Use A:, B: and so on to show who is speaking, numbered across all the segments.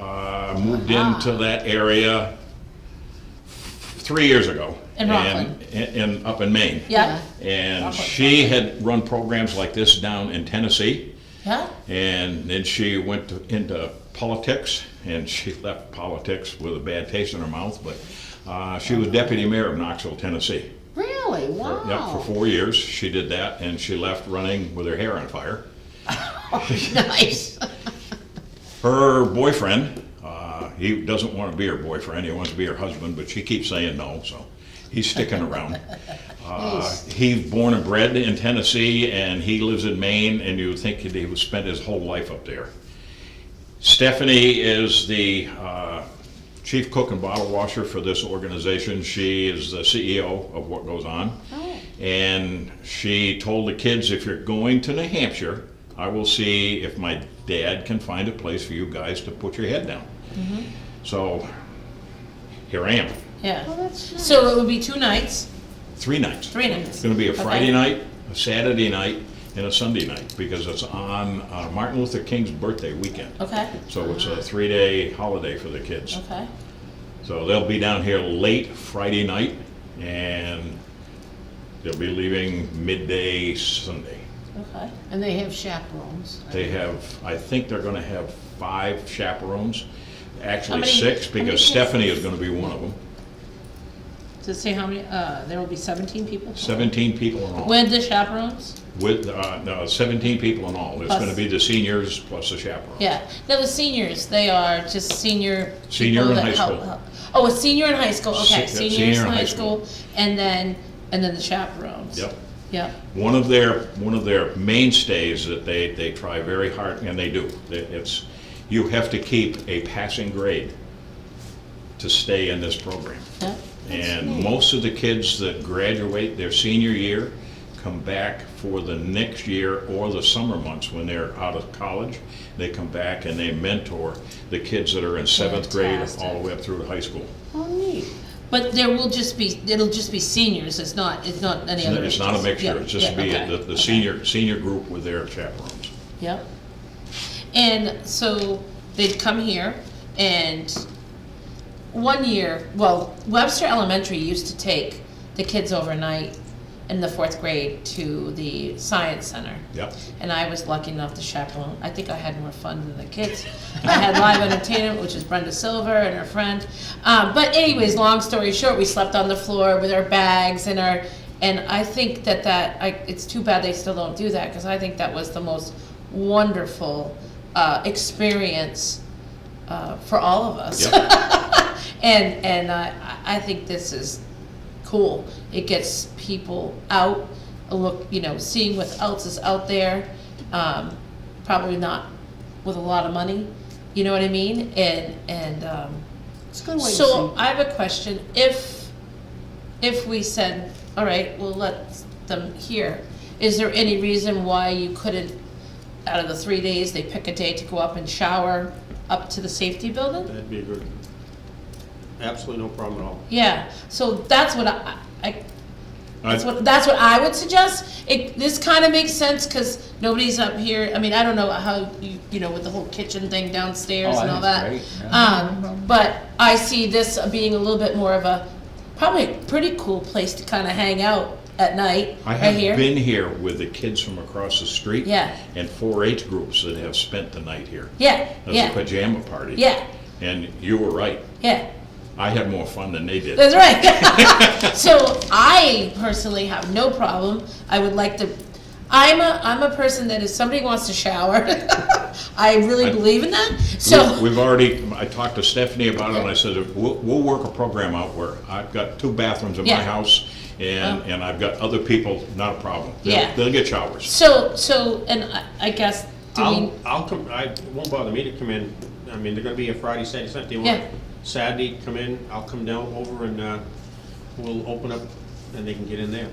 A: uh, moved into
B: Ah.
A: that area three years ago.
B: In Rockland.
A: And, and up in Maine.
B: Yeah,
A: And
B: Rockland,
A: she had run programs like this down in Tennessee.
B: yeah,
A: And then she went to- into politics, and she left politics with a bad taste in her mouth, but uh, she was deputy mayor of Knoxville, Tennessee.
B: really, wow.
A: Yep, for four years, she did that, and she left running with her hair on fire.
B: Nice.
A: Her boyfriend, uh, he doesn't want to be her boyfriend, he wants to be her husband, but she keeps saying no, so he's sticking around. Uh,
B: Nice.
A: He's born and bred in Tennessee, and he lives in Maine, and you would think that he would spend his whole life up there. Stephanie is the uh, chief cook and bottle washer for this organization. She is the CEO of What Goes On.
B: Oh.
A: And she told the kids, if you're going to New Hampshire, I will see if my dad can find a place for you guys to put your head down.
B: Mm-hmm.
A: So here I am,
B: Yeah.
C: that's nice.
B: So it would be two nights,
A: three nights.
B: three nights.
A: It's gonna be a
B: Okay.
A: Friday night, a Saturday night, and a Sunday night, because it's on uh, Martin Luther King's birthday weekend.
B: Okay,
A: So it's a three-day holiday for the kids.
B: okay.
A: So they'll be down here late Friday night, and they'll be leaving midday Sunday.
B: Okay.
C: And they have chaperones.
A: They have, I think they're gonna have five chaperones, actually
B: many-
A: six,
B: how many
A: because
B: kids?
A: Stephanie is gonna be one of them.
B: Does it say how many, uh, there will be seventeen people?
A: Seventeen people in all,
B: With the chaperones?
A: with, uh, no, seventeen people in all. There's
B: Plus-
A: gonna be the seniors plus the chaperones.
B: Yeah. Now the seniors, they are just senior. people
A: Senior in
B: that
A: high
B: help-
A: school.
B: Oh, a senior in high school, okay,
A: Se- yeah,
B: seniors in high school, and then, and then the chaperones.
A: Yep.
B: Yep,
A: One of their, one of their mainstays that they, they try very hard, and they do, that it's, you have to keep a passing grade to stay in this program.
B: yep.
A: And most of the kids that graduate their senior year come back for the next year or the summer months when they're out of college. They come back and they mentor the kids that are in seventh grade all the way up through to high school.
C: Oh, neat.
B: But there will just be, it'll just be seniors, it's not, it's not any other
A: It's not a
B: ages.
A: mixture,
B: Yeah,
A: it's just
B: yeah,
A: be
B: okay,
A: the, the
B: okay.
A: senior, senior group with their chaperones.
B: Yep. And so they'd come here and one year, well, Webster Elementary used to take the kids overnight in the fourth grade to the science center.
A: Yep.
B: And I was lucky enough to chaperone. I think I had more fun than the kids. I had live entertainment, which is Brenda Silver and her friend. Um, but anyways, long story short, we slept on the floor with our bags and our, and I think that that, I, it's too bad they still don't do that because I think that was the most wonderful uh, experience uh, for all of us.
A: Yep.
B: And, and uh, I I think this is cool. It gets people out, a look, you know, seeing what else is out there. Um, probably not with a lot of money, you know what I mean? And, and, um,
C: It's a good way to
B: so
C: see.
B: I have a question. If, if we said, all right, we'll let them hear, is there any reason why you couldn't, out of the three days, they pick a day to go up and shower up to the safety building?
D: That'd be a good, absolutely no problem at all.
B: Yeah, so that's what I, I,
A: I-
B: that's what, that's what I would suggest. It, this kinda makes sense, cause nobody's up here, I mean, I don't know how you, you know, with the whole kitchen thing downstairs
E: Oh,
B: and all
E: that's
B: that.
E: great,
B: Um, but I see this being a little bit more of a, probably a pretty cool place to kinda hang out at night,
A: I
B: right
A: have
B: here.
A: been here with the kids from across the street.
B: Yeah.
A: And 4-H groups that have spent the night here.
B: Yeah,
A: As a
B: yeah,
A: pajama party.
B: yeah,
A: And you were right.
B: yeah.
A: I had more fun than they did.
B: That's right. so I personally have no problem. I would like to. I'm a I'm a person that if somebody wants to shower, I really
A: I-
B: believe in that.
A: We-
B: So
A: We've already, I talked to Stephanie about it, and I said, we'll, we'll work a program out where I've got two bathrooms in my
B: Yeah.
A: house, and,
B: Oh.
A: and I've got other people, not a problem. They'll-
B: Yeah.
A: They'll get showers.
B: so so and I, I guess do
D: I'll,
B: we?
D: I'll come, I, it won't bother me to come in, I mean, they're gonna be here Friday, Saturday, Sunday, they
B: Yeah.
D: want Saturday, come in, I'll come down over and, uh, we'll open up and they can get in there.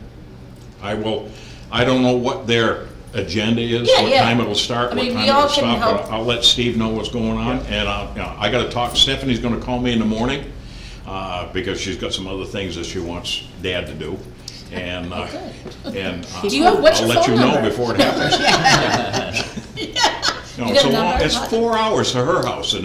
A: I will, I don't know what their agenda is,
B: Yeah,
A: what
B: yeah.
A: time it'll start, what
B: I mean,
A: time
B: we all
A: it'll
B: can
A: stop. but
B: help.
A: I'll let Steve know what's going on, and I'll, you know, I gotta talk, Stephanie's gonna call me in the morning, uh, because she's got some other things that she wants Dad to do, and, uh, and. uh,
B: Oh, Do you have- what's your phone
A: I'll let you
B: number?
A: know before it happens. No,
B: You
A: it's
B: got
A: a
B: a
A: long,
B: number?
A: it's four hours to her house, and